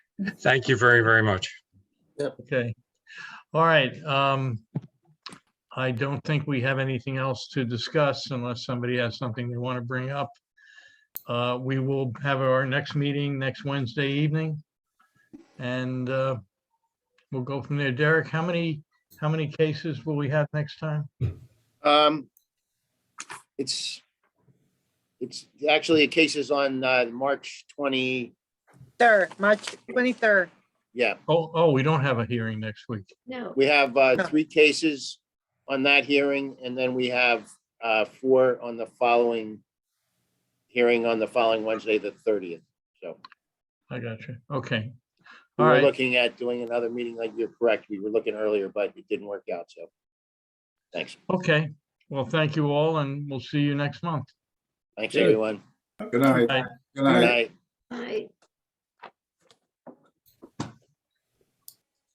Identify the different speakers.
Speaker 1: Thank you very, very much.
Speaker 2: Okay. All right. um, I don't think we have anything else to discuss unless somebody has something they want to bring up. Uh, We will have our next meeting next Wednesday evening. And uh, we'll go from there. Derek, how many, how many cases will we have next time?
Speaker 3: Um, it's, it's actually, the case is on, uh, March twenty,
Speaker 4: Third, March twenty-third.
Speaker 3: yeah,
Speaker 2: Oh, oh, we don't have a hearing next week.
Speaker 5: No,
Speaker 3: we have, uh, three cases on that hearing, and then we have, uh, four on the following hearing on the following Wednesday, the thirtieth, so.
Speaker 2: I got you. Okay.
Speaker 3: We
Speaker 2: All
Speaker 3: were
Speaker 2: right.
Speaker 3: looking at doing another meeting, like you're correct, we were looking earlier, but it didn't work out, so. Thanks,
Speaker 2: Okay. Well, thank you all and we'll see you next month.
Speaker 3: thanks, everyone.
Speaker 6: Good night.
Speaker 2: Bye.
Speaker 6: Good
Speaker 3: Good
Speaker 6: night.
Speaker 3: night.
Speaker 5: I,